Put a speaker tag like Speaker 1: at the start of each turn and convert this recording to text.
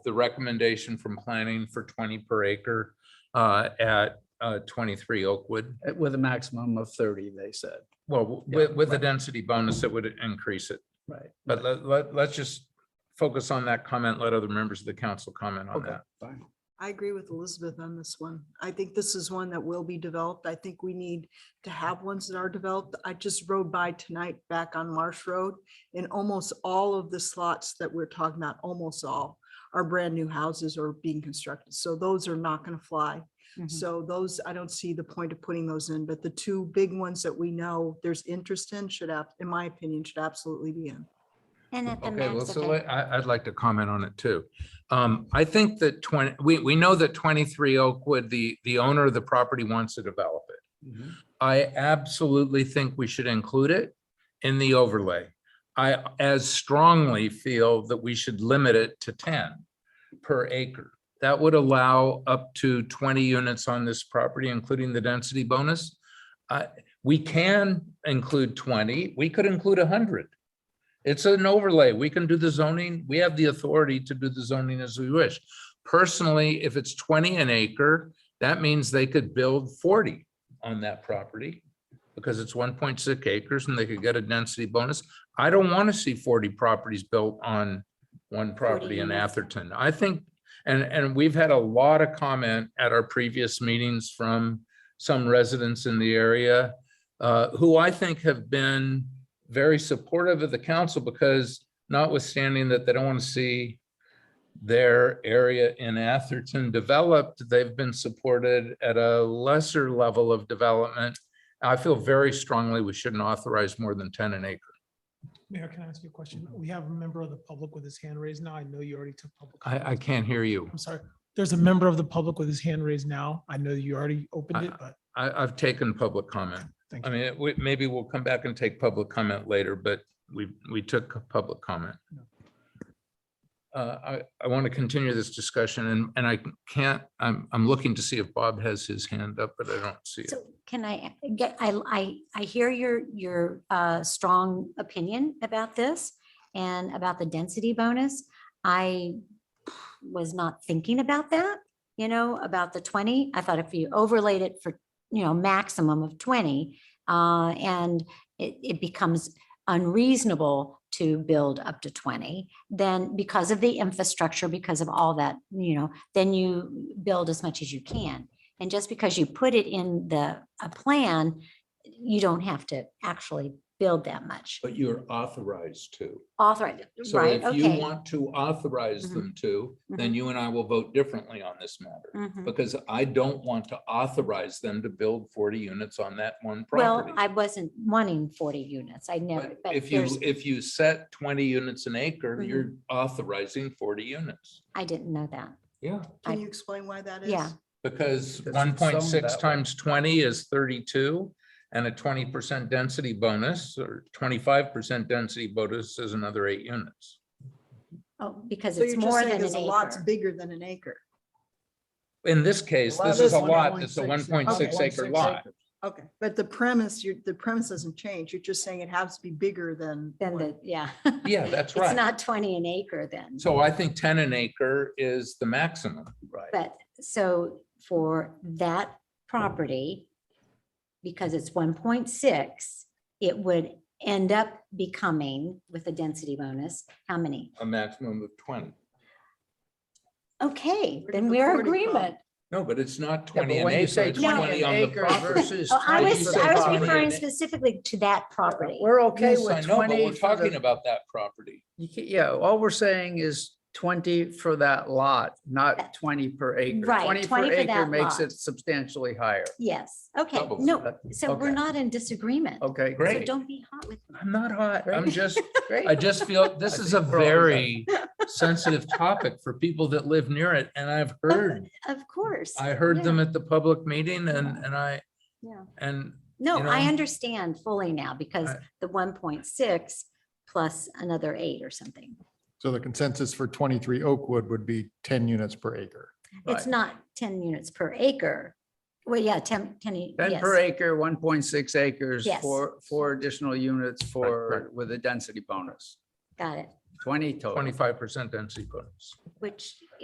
Speaker 1: the recommendation from planning for twenty per acre uh, at uh, twenty-three Oakwood.
Speaker 2: Uh, With a maximum of thirty, they said,
Speaker 1: Well,
Speaker 2: Yeah,
Speaker 1: with, with a
Speaker 2: right.
Speaker 1: density bonus, it would increase it.
Speaker 2: right?
Speaker 1: But let, let, let's just focus on that comment. Let other members of the council comment on
Speaker 2: Okay,
Speaker 1: that.
Speaker 2: fine.
Speaker 3: I agree with Elizabeth on this one. I think this is one that will be developed. I think we need to have ones that are developed. I just rode by tonight back on Marsh Road. And almost all of the slots that we're talking about, almost all, are brand new houses or being constructed. So those are not going to fly.
Speaker 4: Mm-hmm.
Speaker 3: So those, I don't see the point of putting those in, but the two big ones that we know there's interest in should, ab- in my opinion, should absolutely be in.
Speaker 4: And at the
Speaker 1: Okay, well,
Speaker 4: max,
Speaker 1: so
Speaker 4: okay.
Speaker 1: let- I, I'd like to comment on it too. Um, I think that twenty, we, we know that twenty-three Oakwood, the, the owner of the property wants to develop it.
Speaker 2: Mhm.
Speaker 1: I absolutely think we should include it in the overlay. I as strongly feel that we should limit it to ten per acre. That would allow up to twenty units on this property, including the density bonus. I- We can include twenty, we could include hundred. It's an overlay. We can do the zoning. We have the authority to do the zoning as we wish. Personally, if it's twenty an acre, that means they could build forty on that property because it's one point six acres and they could get a density bonus. I don't want to see forty properties built on one property in
Speaker 4: units.
Speaker 1: Atherton. I think, and, and we've had a lot of comment at our previous meetings from some residents in the area uh, who I think have been very supportive of the council because notwithstanding that they don't want to see their area in Atherton developed, they've been supported at a lesser level of development. I feel very strongly we shouldn't authorize more than 10 an acre.
Speaker 5: Mayor, can I ask you a question?
Speaker 1: Mm-hmm.
Speaker 5: We have a member of the public with his hand raised now. I know you already took public.
Speaker 1: I, I
Speaker 5: comments.
Speaker 1: can't hear you.
Speaker 5: I'm sorry. There's a member of the public with his hand raised now. I know you already opened it, but
Speaker 1: I, I've taken public comment.
Speaker 5: thank
Speaker 1: I
Speaker 5: you.
Speaker 1: mean, it- we- maybe we'll come back and take public comment later, but we, we took a public comment. Uh, I, I want to continue this discussion and, and I can't, I'm, I'm looking to see if Bob has his hand up, but I don't see it.
Speaker 4: So can I get, I, I, I hear your, your uh, strong opinion about this and about the density bonus. I was not thinking about that, you know, about the 20. I thought if you overlaid it for, you know, maximum of 20, uh, and it, it becomes unreasonable to build up to 20, then because of the infrastructure, because of all that, you know, then you build as much as you can. And just because you put it in the, a plan, you don't have to actually build that much.
Speaker 1: But you're authorized to.
Speaker 4: Authorize,
Speaker 1: So
Speaker 4: right,
Speaker 1: if you
Speaker 4: okay.
Speaker 1: want to authorize
Speaker 4: Mhm.
Speaker 1: them to, then you and I will vote differently on this matter.
Speaker 4: Mhm.
Speaker 1: Because I don't want to authorize them to build 40 units on that one property.
Speaker 4: Well, I wasn't wanting forty units. I never,
Speaker 1: But
Speaker 4: but
Speaker 1: If you,
Speaker 4: there's, Mm-hmm.
Speaker 1: if you set 20 units an acre, you're authorizing 40 units.
Speaker 4: I didn't know that.
Speaker 1: Yeah.
Speaker 4: I-
Speaker 3: Can you explain why that is?
Speaker 4: Yeah.
Speaker 1: Because
Speaker 2: Because it's summed
Speaker 1: 1.6
Speaker 2: that way.
Speaker 1: times 20 is 32 and a 20% density bonus or 25% density bonus is another eight units.
Speaker 4: Oh, because
Speaker 3: So
Speaker 4: it's
Speaker 3: you're just
Speaker 4: more
Speaker 3: saying
Speaker 4: than
Speaker 3: there's
Speaker 4: an
Speaker 3: a lot's
Speaker 4: acre.
Speaker 3: bigger than an acre.
Speaker 1: In this case,
Speaker 2: Lot
Speaker 1: this is a
Speaker 2: is
Speaker 1: lot, it's a
Speaker 2: 1.6
Speaker 1: 1.6 acre
Speaker 2: acres.
Speaker 1: lot.
Speaker 3: Okay, but the premise, you're, the premise doesn't change. You're just saying it has to be bigger than.
Speaker 4: Then
Speaker 3: one.
Speaker 4: the, yeah.
Speaker 1: Yeah, that's
Speaker 4: It's
Speaker 1: right.
Speaker 4: not twenty an acre then.
Speaker 1: So I think ten an acre is the maximum.
Speaker 2: Right.
Speaker 4: But so for that property, because it's one point six, it would end up becoming with a density bonus, how many?
Speaker 1: A maximum of twenty.
Speaker 4: Okay,
Speaker 3: Where did
Speaker 4: then
Speaker 3: the
Speaker 4: we're
Speaker 3: 40 come?
Speaker 4: agreement.
Speaker 1: No, but it's not
Speaker 2: Yeah,
Speaker 1: twenty
Speaker 2: but
Speaker 1: an
Speaker 2: when you
Speaker 1: acre.
Speaker 2: say
Speaker 1: it's
Speaker 4: No.
Speaker 2: twenty
Speaker 1: 20 on
Speaker 2: an
Speaker 1: the
Speaker 2: acre
Speaker 1: property.
Speaker 2: versus.
Speaker 4: Oh, I
Speaker 2: 20
Speaker 4: was,
Speaker 2: for
Speaker 4: I was
Speaker 2: property.
Speaker 4: referring specifically to that property.
Speaker 2: We're okay
Speaker 1: Yes, I
Speaker 2: with
Speaker 1: know, but
Speaker 2: twenty.
Speaker 1: we're
Speaker 2: for the-
Speaker 1: talking about that property.
Speaker 2: You ca- Yeah, all we're saying is twenty for that lot, not twenty per acre.
Speaker 4: Right,
Speaker 2: 20 per
Speaker 4: 20 for
Speaker 2: acre
Speaker 4: that
Speaker 2: Makes
Speaker 4: lot.
Speaker 2: it substantially higher.
Speaker 4: Yes, okay,
Speaker 1: Double.
Speaker 4: no, so we're
Speaker 2: Okay.
Speaker 4: not in disagreement.
Speaker 2: Okay,
Speaker 4: So
Speaker 1: Oh, Great.
Speaker 4: don't be hot with me.
Speaker 1: I'm not hot. I'm
Speaker 2: Great.
Speaker 1: just,
Speaker 2: great.
Speaker 1: I just feel this
Speaker 2: I
Speaker 1: is a
Speaker 2: think we're all done.
Speaker 1: very sensitive topic for people that live near it. And I've heard,
Speaker 4: Of course.
Speaker 1: I heard
Speaker 4: yeah,
Speaker 1: them at the public meeting and, and I,
Speaker 4: yeah.
Speaker 1: and
Speaker 4: No,
Speaker 1: you
Speaker 4: I
Speaker 1: know?
Speaker 4: understand fully now because
Speaker 1: I-
Speaker 4: the one point six plus another eight or something.
Speaker 6: So the consensus for twenty-three Oakwood would be ten units per acre.
Speaker 2: Right.
Speaker 4: It's not ten units per acre. Well, yeah, ten, ten, u-
Speaker 2: Ten
Speaker 4: yes.
Speaker 2: per acre, one point six acres
Speaker 4: Yes.
Speaker 2: for, four additional units
Speaker 1: Right,
Speaker 2: for, with a density bonus.
Speaker 4: Got it.
Speaker 2: twenty total. Oh.
Speaker 1: twenty-five percent density bonus.
Speaker 4: which